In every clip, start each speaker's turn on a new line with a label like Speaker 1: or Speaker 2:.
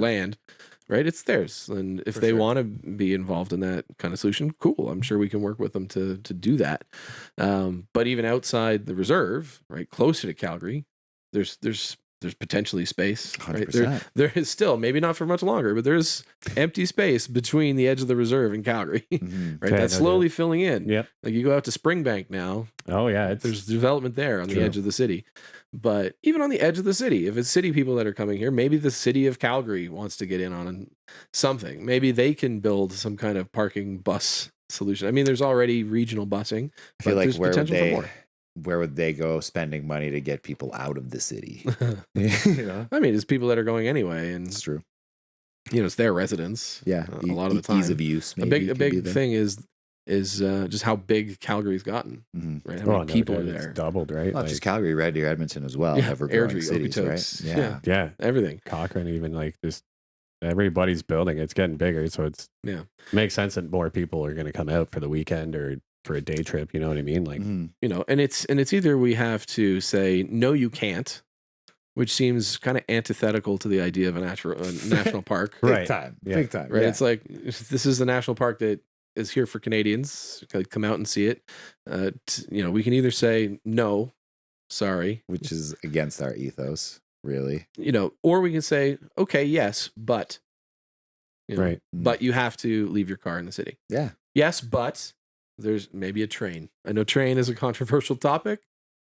Speaker 1: land, right? It's theirs. And if
Speaker 2: For
Speaker 1: they
Speaker 2: sure.
Speaker 1: want to be involved in that kind of solution, cool. I'm sure we can work with them to to do that. Um, but even outside the reserve, right, closer to Calgary, there's there's there's potentially space.
Speaker 2: Hundred
Speaker 1: Right? There,
Speaker 2: percent.
Speaker 1: there is still maybe not for much longer, but there's empty space between the edge of the reserve and Calgary.
Speaker 2: Mhm.
Speaker 1: Right,
Speaker 3: Okay,
Speaker 1: that's
Speaker 3: no doubt.
Speaker 1: slowly filling in.
Speaker 3: Yep.
Speaker 1: Like you go out to Springbank now,
Speaker 3: Oh yeah. It's,
Speaker 1: there's development there on
Speaker 3: True.
Speaker 1: the edge of the city. But even on the edge of the city, if it's city people that are coming here, maybe the city of Calgary wants to get in on something. Maybe they can build some kind of parking bus solution. I mean, there's already regional busing.
Speaker 2: I feel
Speaker 1: But
Speaker 2: like
Speaker 1: there's
Speaker 2: where would
Speaker 1: potential for
Speaker 2: they,
Speaker 1: more.
Speaker 2: where would they go spending money to get people out of the city? you know,
Speaker 1: I mean, it's people that are going anyway, and
Speaker 2: it's true.
Speaker 1: you know, it's their residence.
Speaker 2: Yeah,
Speaker 1: Uh,
Speaker 2: e-
Speaker 1: a lot of
Speaker 2: e-
Speaker 1: the time.
Speaker 2: ease of use.
Speaker 1: a
Speaker 2: Maybe
Speaker 1: big, a
Speaker 2: could be
Speaker 1: big
Speaker 2: the-
Speaker 1: thing is is uh, just how big Calgary's gotten.
Speaker 2: Mhm.
Speaker 1: Right, how
Speaker 3: oh,
Speaker 1: many
Speaker 3: no
Speaker 1: people
Speaker 3: doubt,
Speaker 1: are
Speaker 3: it's
Speaker 1: there?
Speaker 3: doubled, right?
Speaker 2: Not
Speaker 3: Like,
Speaker 2: just Calgary, Red Deer, Edmonton as well.
Speaker 1: Yeah,
Speaker 2: Ever
Speaker 1: Airdrie,
Speaker 2: growing cities,
Speaker 1: Okotoks,
Speaker 2: right? Yeah.
Speaker 1: yeah.
Speaker 3: yeah,
Speaker 1: Everything.
Speaker 3: Cochrane, even like just everybody's building. It's getting bigger, so it's
Speaker 1: Yeah.
Speaker 3: makes sense that more people are going to come out for the weekend or for a day trip. You know what I mean? Like,
Speaker 2: Mhm.
Speaker 1: you know and it's and it's either we have to say no you can't which seems kind of antithetical to the idea of a natural a national park
Speaker 2: Big
Speaker 3: Right.
Speaker 2: time.
Speaker 3: Yeah.
Speaker 2: Big time.
Speaker 1: right
Speaker 2: yeah.
Speaker 1: it's like this is the national park that is here for canadians like, come out and see it uh, t- you know we can either say no sorry
Speaker 2: Which is against our ethos, really.
Speaker 1: you know or we can say okay yes but you know,
Speaker 3: right?
Speaker 1: but you have to leave your car in the city
Speaker 2: Yeah.
Speaker 1: Yes, but there's maybe a train. I know train is a controversial topic,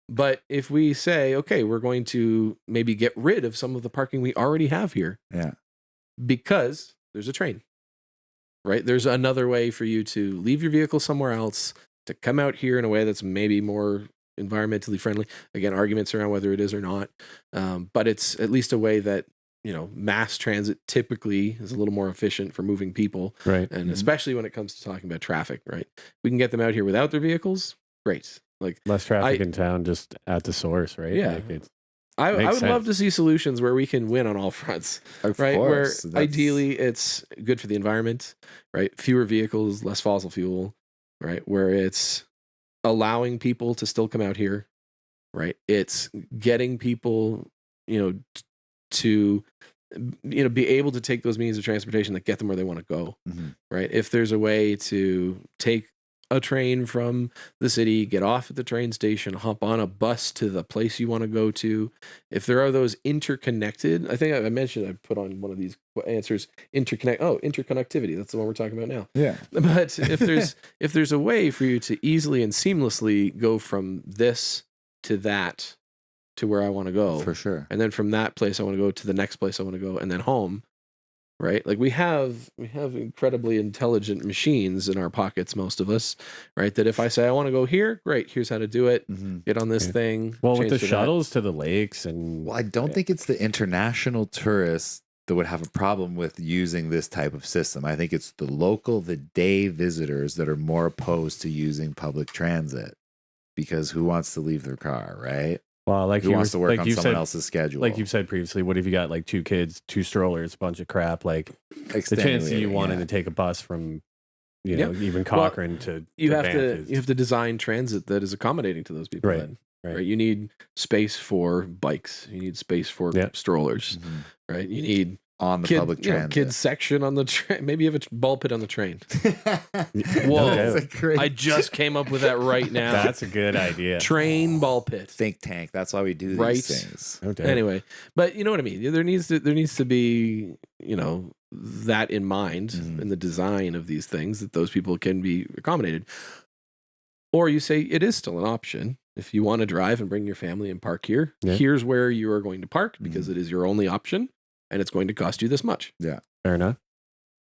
Speaker 1: but if we say, okay, we're going to maybe get rid of some of the parking we already have here
Speaker 2: Yeah.
Speaker 1: because there's a train, right? There's another way for you to leave your vehicle somewhere else, to come out here in a way that's maybe more environmentally friendly. Again, arguments around whether it is or not, um, but it's at least a way that, you know, mass transit typically is a little more efficient for moving people
Speaker 3: Right.
Speaker 1: and
Speaker 2: Mhm.
Speaker 1: especially when it comes to talking about traffic, right? We can get them out here without their vehicles. Great. Like
Speaker 3: Less traffic
Speaker 1: I-
Speaker 3: in town, just at the source, right?
Speaker 1: Yeah.
Speaker 3: Like it's,
Speaker 1: I, I
Speaker 3: Makes
Speaker 1: would love
Speaker 3: sense.
Speaker 1: to see solutions where we can win on all fronts,
Speaker 2: Of
Speaker 1: right?
Speaker 2: course.
Speaker 1: where
Speaker 2: that's-
Speaker 1: ideally it's good for the environment, right? Fewer vehicles, less fossil fuel, right? Where it's allowing people to still come out here, right? It's getting people, you know, t- to you know be able to take those means of transportation that get them where they want to go.
Speaker 2: Mhm.
Speaker 1: right? If there's a way to take a train from the city, get off at the train station, hop on a bus to the place you want to go to, if there are those interconnected, I think I I mentioned I put on one of these answers interconnect. Oh, interconnectivity. That's the one we're talking about now.
Speaker 2: Yeah.
Speaker 1: But if there's if there's a way for you to easily and seamlessly go from this to that to where I want to go,
Speaker 2: For sure.
Speaker 1: and then from that place i want to go to the next place i want to go and then home right like we have we have incredibly intelligent machines in our pockets most of us right that if i say i want to go here great here's how to do it
Speaker 2: Mhm.
Speaker 1: get on this
Speaker 3: Yeah.
Speaker 1: thing
Speaker 3: well,
Speaker 1: change
Speaker 3: with the
Speaker 1: to that.
Speaker 3: shuttles to the lakes and
Speaker 2: Well, I don't think it's the international tourists that would have a problem with using this type of system. I think it's the local, the day visitors that are more opposed to using public transit because who wants to leave their car, right?
Speaker 3: well, like
Speaker 2: who
Speaker 3: you
Speaker 2: wants
Speaker 3: were-
Speaker 2: to work
Speaker 3: like
Speaker 2: on
Speaker 3: you
Speaker 2: someone
Speaker 3: said,
Speaker 2: else's schedule?
Speaker 3: like you've said previously. What if you got like two kids, two strollers, a bunch of crap? Like the chance that you
Speaker 2: Extenuating,
Speaker 3: wanted
Speaker 2: yeah.
Speaker 3: to take a bus from, you
Speaker 1: Yeah.
Speaker 3: know, even Cochrane to
Speaker 1: you
Speaker 3: to
Speaker 1: have
Speaker 3: Banff
Speaker 1: to
Speaker 3: is-
Speaker 1: you have to design transit that is accommodating to those people
Speaker 3: Right,
Speaker 1: then,
Speaker 3: right.
Speaker 1: you need space for bikes you need space for
Speaker 3: Yeah.
Speaker 1: strollers
Speaker 2: Mhm.
Speaker 1: right you need
Speaker 2: on the
Speaker 1: kid,
Speaker 2: public
Speaker 1: you know,
Speaker 2: transit.
Speaker 1: kids section on the train maybe you have a t- ball pit on the train
Speaker 3: Whoa.
Speaker 2: That's a great
Speaker 1: i just came up with that right now
Speaker 3: That's a good idea.
Speaker 1: train ball pit
Speaker 2: think tank. That's why we do these
Speaker 1: Right.
Speaker 2: things.
Speaker 3: Okay.
Speaker 1: anyway but you know what i mean there needs to there needs to be you know that in mind
Speaker 3: Mm-hmm.
Speaker 2: Mhm.
Speaker 1: in the design of these things that those people can be accommodated or you say it is still an option if you want to drive and bring your family and park here
Speaker 3: Yeah. Mm-hmm.
Speaker 1: here's where you are going to park because it is your only option and it's going to cost you this much
Speaker 3: Fair enough.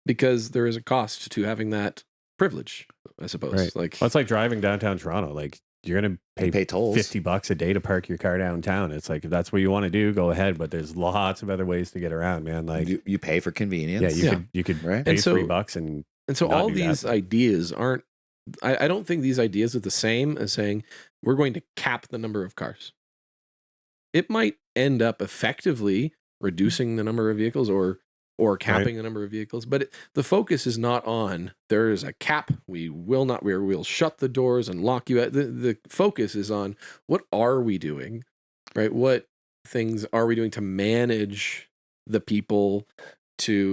Speaker 1: because there is a cost to having that privilege i suppose
Speaker 3: Right.
Speaker 1: like
Speaker 3: Well, it's like driving downtown Toronto. Like you're gonna
Speaker 2: They
Speaker 3: pay,
Speaker 2: pay tolls.
Speaker 3: fifty bucks a day to park your car downtown. It's like if that's what you want to do, go ahead. But there's lots of other ways to get around, man. Like
Speaker 2: you, you pay for
Speaker 3: yeah,
Speaker 2: convenience.
Speaker 3: you
Speaker 1: Yeah.
Speaker 3: could you could
Speaker 2: Right?
Speaker 3: pay
Speaker 1: And so-
Speaker 3: three bucks and
Speaker 1: And so
Speaker 3: not
Speaker 1: all
Speaker 3: do that.
Speaker 1: these ideas aren't I, I don't think these ideas are the same as saying we're going to cap the number of cars. It might end up effectively
Speaker 3: Hmm.
Speaker 1: reducing the number of vehicles or or capping the number of vehicles, but it, the focus is not on there is a cap. We will not. We will shut the doors and lock you out. The, the focus is on what are we doing, right? What things are we doing to manage the people to